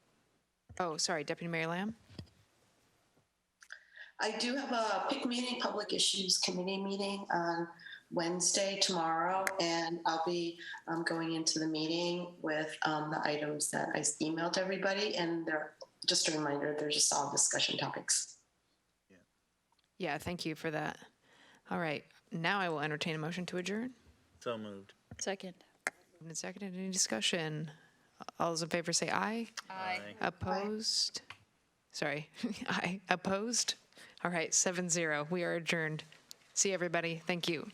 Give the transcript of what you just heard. Oh, sorry, Deputy Mayor Lamb? I do have a PIC meeting, Public Issues Committee meeting on Wednesday, tomorrow, and I'll be um, going into the meeting with um, the items that I emailed everybody, and they're, just a reminder, they're just all discussion topics. Yeah, thank you for that. All right, now I will entertain a motion to adjourn. So moved. Second. Moved And seconded, any discussion? All those in favor say aye. Aye. Opposed? Sorry, aye. Opposed? All right, seven zero. We are adjourned. See everybody. Thank you.